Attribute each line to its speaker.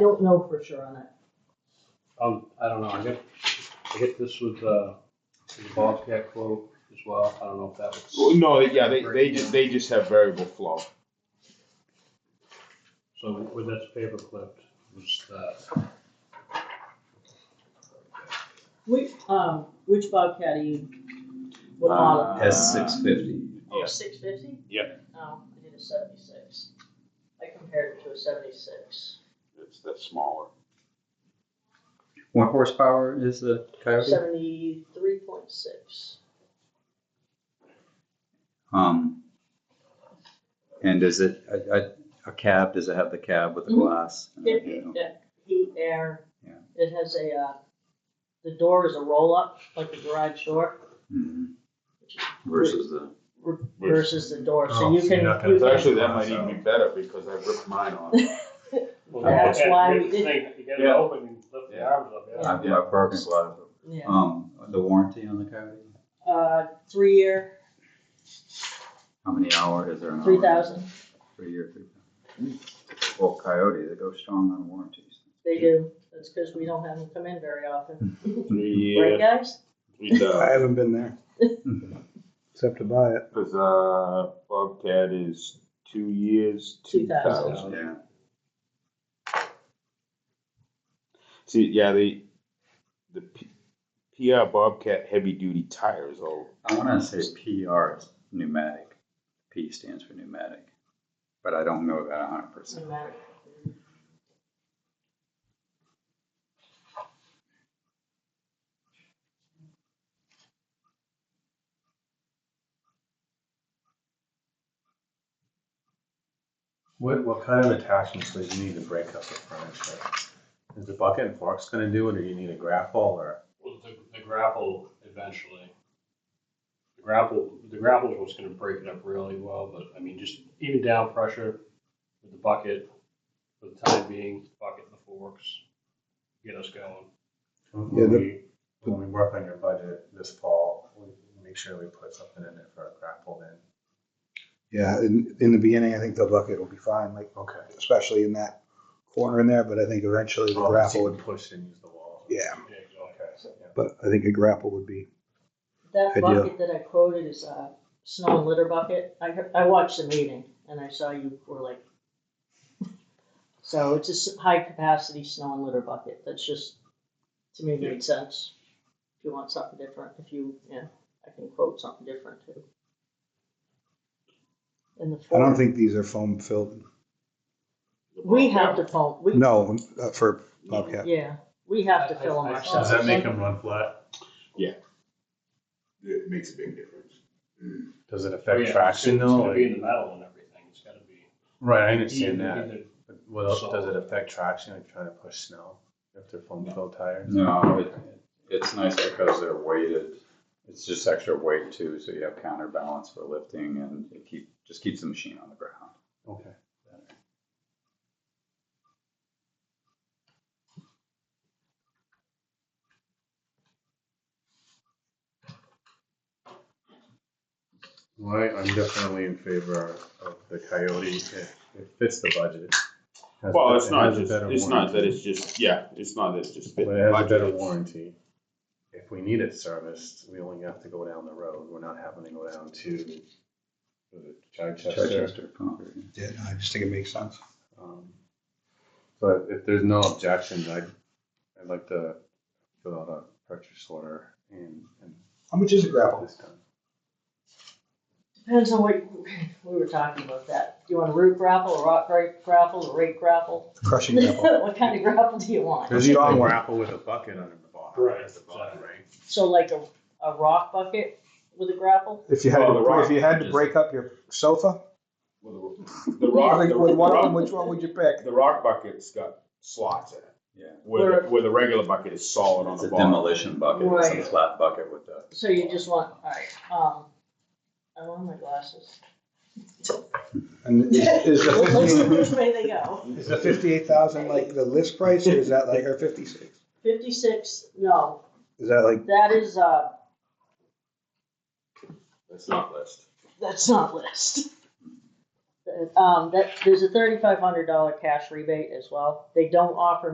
Speaker 1: I don't know for sure on that.
Speaker 2: Um, I don't know, I get, I get this with, uh, the Bobcat quote as well, I don't know if that
Speaker 3: Well,
Speaker 2: was,
Speaker 3: No, yeah, they, they just, they just have variable flow.
Speaker 2: so with this paper clip, was that,
Speaker 1: Which, um, which Bobcat are you,
Speaker 4: Uh,
Speaker 1: what model?
Speaker 5: S six fifty.
Speaker 3: yeah.
Speaker 1: Oh, six fifty?
Speaker 3: Yep.
Speaker 1: No, I did a seventy-six. I compared it to a seventy-six.
Speaker 3: It's, that's smaller.
Speaker 5: What horsepower is the Coyote?
Speaker 1: Seventy-three point six.
Speaker 5: Um, and is it a, a, a cab? Does it have the cab with the
Speaker 1: Mhm.
Speaker 5: glass? and
Speaker 1: It,
Speaker 5: everything?
Speaker 1: it- heat, air.
Speaker 5: Yeah.
Speaker 1: It has a, uh, the door is a roll-up, like the garage door,
Speaker 5: Mhm. Versus the
Speaker 1: r- versus the door, so
Speaker 4: Oh,
Speaker 1: you
Speaker 4: so
Speaker 1: can,
Speaker 4: you're not gonna
Speaker 1: you
Speaker 3: Because
Speaker 1: can
Speaker 3: actually, that might even be better because I ripped mine off.
Speaker 1: That's why we did-
Speaker 2: did. You get it
Speaker 3: Yeah.
Speaker 2: open and lift the
Speaker 3: Yeah.
Speaker 2: arms up, yeah.
Speaker 5: I've, I've broken a lot of them.
Speaker 1: Yeah,
Speaker 5: Um, the warranty on the Coyote?
Speaker 4: Oh.
Speaker 1: uh, three year,
Speaker 5: How many hour is there? An
Speaker 1: three
Speaker 5: hour?
Speaker 1: thousand,
Speaker 5: Three year, three thousand. Well, Coyote, they go strong on warranties.
Speaker 1: they do, that's because we don't have them come in very often, right,
Speaker 3: Three, uh,
Speaker 1: guys?
Speaker 3: three
Speaker 6: I
Speaker 3: thousand.
Speaker 6: haven't been there.
Speaker 1: Mm-hmm.
Speaker 6: Except to buy it.
Speaker 3: Because, uh, Bobcat is two years, two
Speaker 1: 2,000.
Speaker 3: thousand.
Speaker 5: Yeah.
Speaker 3: See, yeah, the, the P- PR Bobcat heavy duty tires all
Speaker 5: I want to say PR is pneumatic. P stands for pneumatic, but I don't know that hundred percent.
Speaker 1: Cinematic.
Speaker 4: What, what kind of attachments do you need to break up the furniture? Is the bucket and forks gonna do it, or you need a grapple, or?
Speaker 2: Well, the, the grapple eventually. The grapple, the grapple is what's gonna break it up really well, but I mean, just even down pressure with the bucket, for the time being, bucket and the forks, get us going.
Speaker 6: Yeah,
Speaker 4: When
Speaker 6: the-
Speaker 4: we, when we work on your budget this fall, we make sure we put something in there for a grapple then.
Speaker 6: Yeah, in, in the beginning, I think the bucket will be fine, like
Speaker 4: Okay.
Speaker 6: especially in that corner in there. But Oh, I think eventually the grapple would.
Speaker 4: Push and use the wall.
Speaker 6: Yeah,
Speaker 2: Yeah, exactly.
Speaker 4: Okay, so, yeah.
Speaker 6: but I think a grapple would be.
Speaker 1: That
Speaker 6: Good
Speaker 1: bucket that I quoted is a snow and litter bucket. I, heard- I watched the meeting and I saw you were like. So it's a s- high capacity snow and litter bucket. That's just, to me, made sense. If you want something different, if you, yeah, I can quote something different too. And the.
Speaker 6: I don't
Speaker 1: fork-
Speaker 6: think these are foam filled.
Speaker 1: We have to fill, we,
Speaker 6: No, uh, for Bobcat.
Speaker 1: yeah, we have to fill them
Speaker 2: I- I-
Speaker 1: ourselves.
Speaker 4: Does that make them run flat?
Speaker 3: It makes a big difference.
Speaker 4: Does it
Speaker 2: Oh, yeah,
Speaker 4: affect
Speaker 2: it's
Speaker 4: traction
Speaker 2: gonna- It's
Speaker 4: though?
Speaker 2: gonna be in the
Speaker 4: Like-
Speaker 2: metal and everything, it's gotta be.
Speaker 4: Right, I understand that,
Speaker 2: Either-
Speaker 4: but what else,
Speaker 2: So-
Speaker 4: does it affect traction, like trying to push snow, if they're foam filled tires?
Speaker 5: No, it, it's nice because they're weighted. It's just extra weight too, so you have counterbalance for lifting and it keep, just keeps the machine on the ground.
Speaker 4: Okay. Well, I- I'm definitely in favor of the coyote, it it fits the budget. Has
Speaker 3: Well,
Speaker 4: bet-
Speaker 3: it's
Speaker 4: it
Speaker 3: not
Speaker 4: has a
Speaker 3: just,
Speaker 4: better
Speaker 3: it's not that
Speaker 4: warranty.
Speaker 3: it's just, yeah, it's not that it's just.
Speaker 4: But it has a better warranty. If we need it serviced, we only have to go down the road, we're not having to go down to was it Chichester.
Speaker 5: Chichester pumper, yeah.
Speaker 6: Yeah, no, I just think it makes sense.
Speaker 4: Um, But if there's no objections, I'd, I'd like to fill out a purchase order and, and
Speaker 6: How much is a
Speaker 4: get
Speaker 6: grapple?
Speaker 4: this done.
Speaker 1: Depends on what, we were talking about that. Do you want a root grapple, a rock grape grapple, a rake grapple?
Speaker 6: Crushing grapple.
Speaker 1: What kind of grapple do you want?
Speaker 6: There's a strong one.
Speaker 4: grapple with a bucket under the bottom.
Speaker 2: Right,
Speaker 4: At the bottom, right?
Speaker 1: So like a, a rock bucket with a grapple?
Speaker 6: If you had
Speaker 3: Well, the
Speaker 6: to, break-
Speaker 3: rock
Speaker 6: if you had to
Speaker 3: is-
Speaker 6: break up your sofa,
Speaker 3: The rock,
Speaker 6: like,
Speaker 3: the
Speaker 6: with one of them,
Speaker 3: rock,
Speaker 6: which one would you pick?
Speaker 3: the rock bucket's got slots in it.
Speaker 5: Yeah.
Speaker 3: Where, the- where the regular bucket is solid on
Speaker 5: It's
Speaker 3: the
Speaker 5: a
Speaker 3: bottom.
Speaker 5: demolition bucket, it's
Speaker 1: Right.
Speaker 5: a flat bucket with the,
Speaker 1: So you just want, alright, um, I want my glasses.
Speaker 6: And is, is the
Speaker 1: Let's see
Speaker 6: fifty,
Speaker 1: which way they go.
Speaker 6: is the fifty-eight thousand like the list price, or is that like our fifty-six?
Speaker 1: Fifty-six, no,
Speaker 6: Is that like
Speaker 1: that is, uh,
Speaker 3: That's not list.
Speaker 1: that's not list. Um, that, there's a thirty-five hundred dollar cash rebate as well. They don't offer